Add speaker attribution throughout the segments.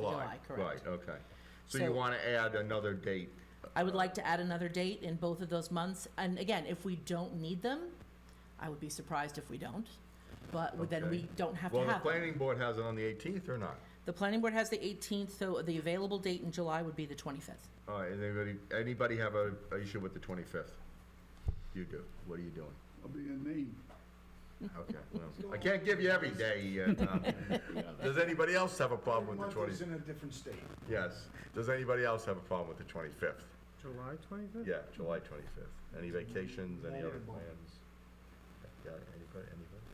Speaker 1: July, correct.
Speaker 2: Right, okay. So you
Speaker 1: So-
Speaker 2: want to add another date?
Speaker 1: I would like to add another date in both of those months, and again, if we don't need them, I would be surprised if we don't, but then we
Speaker 2: Okay.
Speaker 1: don't have to
Speaker 2: Well,
Speaker 1: have
Speaker 2: the
Speaker 1: them.
Speaker 2: planning board has it on the 18th or not?
Speaker 1: The planning board has the 18th, so the available date in July would be the 25th.
Speaker 2: All right, Uh, anybody, anybody have a, a issue with the 25th? You do. What are you doing?
Speaker 3: I'll be in Maine.
Speaker 2: Okay, well, I can't give you every day. uh, Tom. Does anybody else have a problem with the
Speaker 3: Month is
Speaker 2: 25th?
Speaker 3: in a different state.
Speaker 2: Yes. Does anybody else have a problem with the 25th?
Speaker 4: July twenty-fifth?
Speaker 2: Yeah, July 25th. Any vacations, any other
Speaker 3: Vulnerable.
Speaker 2: plans? Yeah, anybody, anybody?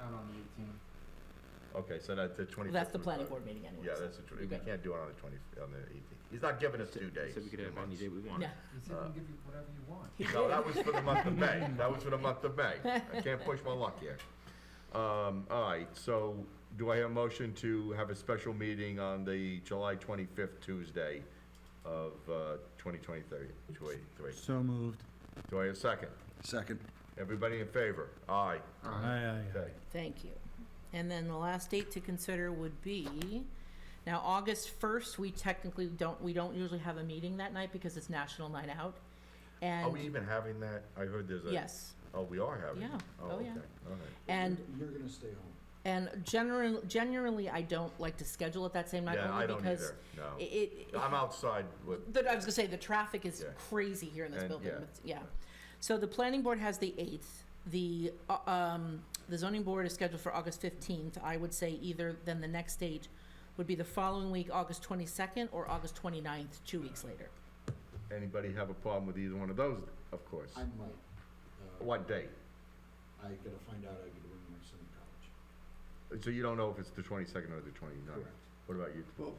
Speaker 5: Out on the eighteenth.
Speaker 2: Okay, so that's the 25th.
Speaker 1: That's the
Speaker 2: was-
Speaker 1: planning board meeting anyway.
Speaker 2: Yeah,
Speaker 1: so
Speaker 2: that's the, tw-
Speaker 1: you're
Speaker 2: we
Speaker 1: good.
Speaker 2: can't do it on the 20th, on the 18th. He's not giving us two days.
Speaker 4: Said we could
Speaker 2: two
Speaker 4: have any
Speaker 2: months.
Speaker 4: day we want.
Speaker 1: No.
Speaker 5: He said we can give you whatever you want.
Speaker 1: He
Speaker 2: No,
Speaker 1: did.
Speaker 2: that was for the month of May. That was for the month of May. I can't push my luck here. Um, all right, so do I have a motion to have a special meeting on the July twenty-fifth Tuesday of, uh, twenty twenty-three, two eighty-three?
Speaker 4: So moved.
Speaker 2: Do I have a second?
Speaker 3: Second.
Speaker 2: Everybody in favor? Aye.
Speaker 4: Aye,
Speaker 2: Okay.
Speaker 1: Thank you. And then the last date to consider would be, now, August 1st, we technically don't, we don't usually have a meeting that night because it's National Night Out.
Speaker 2: Are Oh, we
Speaker 1: And,
Speaker 2: even having that? I heard there's a.
Speaker 1: yes,
Speaker 2: Oh, we are having? it.
Speaker 1: Yeah. Oh,
Speaker 2: okay.
Speaker 1: yeah.
Speaker 2: All right.
Speaker 1: and,
Speaker 3: You're gonna stay home.
Speaker 1: and generally, generally, I don't like to schedule it that same night
Speaker 2: Yeah, I
Speaker 1: only
Speaker 2: don't
Speaker 1: because
Speaker 2: either, no.
Speaker 1: it- it,
Speaker 2: I'm outside with,
Speaker 1: But I was gonna say, the traffic is
Speaker 2: Yeah.
Speaker 1: crazy here in this
Speaker 2: And-
Speaker 1: building,
Speaker 2: yeah.
Speaker 1: with- yeah. So the planning board has the eighth, the, uh, um, the zoning board is scheduled for August fifteenth. I would say either, then the next date would be the following week, August twenty-second, or August 29th, two weeks later.
Speaker 2: anybody have a problem with either one of those, of course?
Speaker 3: I might. uh,
Speaker 2: What date?
Speaker 3: I gotta find out I gotta bring my son to college.
Speaker 2: So you don't know if it's the twenty-second or the 29th. What about you?
Speaker 3: Well,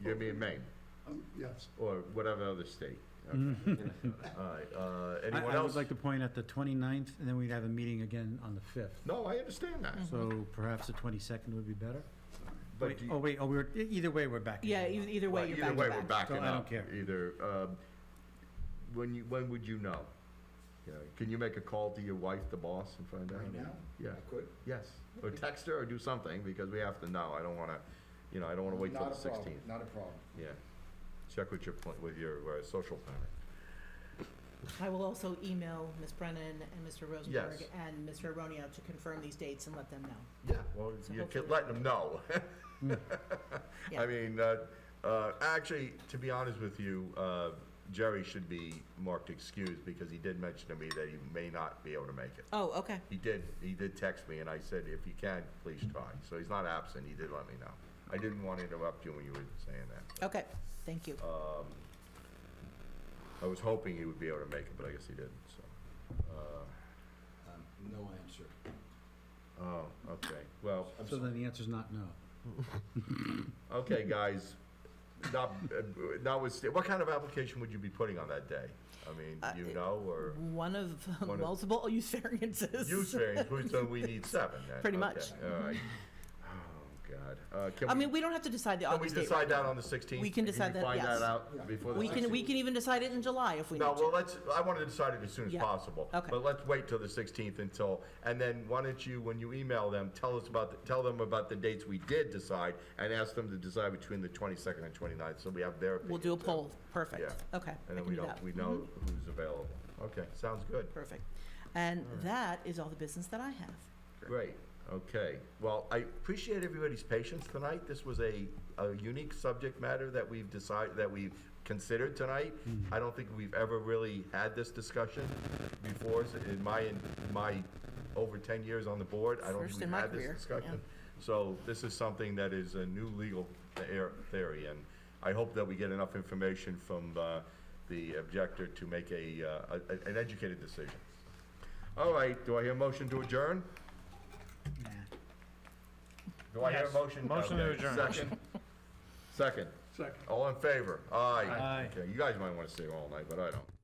Speaker 2: You're gonna be in Maine,
Speaker 3: um, yes.
Speaker 2: or whatever other state. Okay. All right, uh,
Speaker 4: I,
Speaker 2: anyone
Speaker 4: I would
Speaker 2: else?
Speaker 4: like to point at the 29th, and then we'd have a meeting again on the fifth.
Speaker 2: No, I understand that,
Speaker 1: Mhm.
Speaker 4: So perhaps the twenty-second would be better?
Speaker 2: but
Speaker 4: Wait,
Speaker 2: do you-
Speaker 4: oh, wait, oh, we're, e- either way, we're back. in
Speaker 1: Yeah,
Speaker 4: July.
Speaker 1: either, either way,
Speaker 2: right,
Speaker 1: you're
Speaker 2: either
Speaker 1: back
Speaker 2: way, we're
Speaker 1: to back.
Speaker 2: backing
Speaker 4: So
Speaker 2: up.
Speaker 4: I don't care.
Speaker 2: Either, um, when you, when would you know? You know, Can you make a call to your wife, the boss, and find out?
Speaker 3: Right now?
Speaker 2: Yeah.
Speaker 3: I could.
Speaker 2: Yes, or text her or do something, because we have to know, I don't wanna, you know, I don't wanna wait till
Speaker 3: Not
Speaker 2: the
Speaker 3: a problem,
Speaker 2: sixteenth.
Speaker 3: Not a problem.
Speaker 2: Yeah, check with your, pl- with your, uh, social planner.
Speaker 1: I will also email Ms. Brennan and Mr. Rosenberg
Speaker 2: Yes.
Speaker 1: and Mr. Aronio to confirm these dates and let them know.
Speaker 2: Yeah, well,
Speaker 1: So
Speaker 2: you
Speaker 1: hopefully-
Speaker 2: can let them know.
Speaker 1: Yeah.
Speaker 2: I mean, uh, uh, actually, to be honest with you, uh, Jerry should be marked excused because he did mention to me that he may not be able to make it.
Speaker 1: Oh, okay,
Speaker 2: He did, he did text me and I said, if you can, please try. So he's not absent, he did let me know. I didn't want to interrupt you when you were saying that.
Speaker 1: okay, thank you.
Speaker 2: I was hoping he would be able to make it, but I guess he didn't, so. uh,
Speaker 3: Um, no answer.
Speaker 2: Oh, okay, well.
Speaker 3: I'm
Speaker 4: So
Speaker 3: sorry.
Speaker 4: then the answer's not no.
Speaker 2: Okay, guys, not, uh, notwithstanding, what kind of application would you be putting on that day? I mean,
Speaker 1: Uh,
Speaker 2: you know, or
Speaker 1: One of
Speaker 2: of-
Speaker 1: multiple use variances.
Speaker 2: use variance, we- so we need seven then.
Speaker 1: Pretty
Speaker 2: okay,
Speaker 1: much.
Speaker 2: All right. Oh, God. Uh,
Speaker 1: I
Speaker 2: Can
Speaker 1: mean,
Speaker 2: we,
Speaker 1: we don't have to decide the
Speaker 2: can we
Speaker 1: August date. right
Speaker 2: decide that on the 16th?
Speaker 1: We can decide that,
Speaker 2: Find
Speaker 1: yes.
Speaker 2: that out before the
Speaker 1: We can, we
Speaker 2: 16th?
Speaker 1: can even decide it in July if we need
Speaker 2: No, well,
Speaker 1: to.
Speaker 2: let's, I want to decide it as soon as
Speaker 1: Yeah,
Speaker 2: possible.
Speaker 1: okay.
Speaker 2: But let's wait till the 16th until, and then why don't you, when you email them, tell us about, the- tell them about the dates we did decide and ask them to decide between the 22nd and 29th, so we have their opinion.
Speaker 1: We'll do a
Speaker 2: too.
Speaker 1: poll, perfect.
Speaker 2: Yeah.
Speaker 1: Okay, I
Speaker 2: And then
Speaker 1: can
Speaker 2: we
Speaker 1: do
Speaker 2: don't,
Speaker 1: that. Mm-hmm.
Speaker 2: we know who's available. Okay, sounds good.
Speaker 1: Perfect. And that is all the business that I have.
Speaker 2: Great, okay. Well, I appreciate everybody's patience tonight. This was a, a unique subject matter that we've decided, that we've considered tonight.
Speaker 1: Mm-hmm.
Speaker 2: I don't think we've ever really had this discussion before, so in my, in my over ten years on the board, I don't
Speaker 1: First
Speaker 2: think
Speaker 1: in
Speaker 2: we've
Speaker 1: my
Speaker 2: had
Speaker 1: career,
Speaker 2: this
Speaker 1: yeah.
Speaker 2: discussion. So this is something that is a new legal theor- theory, and I hope that we get enough information from, uh, the objector to make a, uh, a- an educated decision. All right, do I hear a motion to adjourn? Do I hear a motion? Motion to adjourn. Second? Second.
Speaker 3: Second.
Speaker 2: All in favor? Aye.
Speaker 4: Aye.
Speaker 2: Okay, you guys might want to stay all night, but I don't.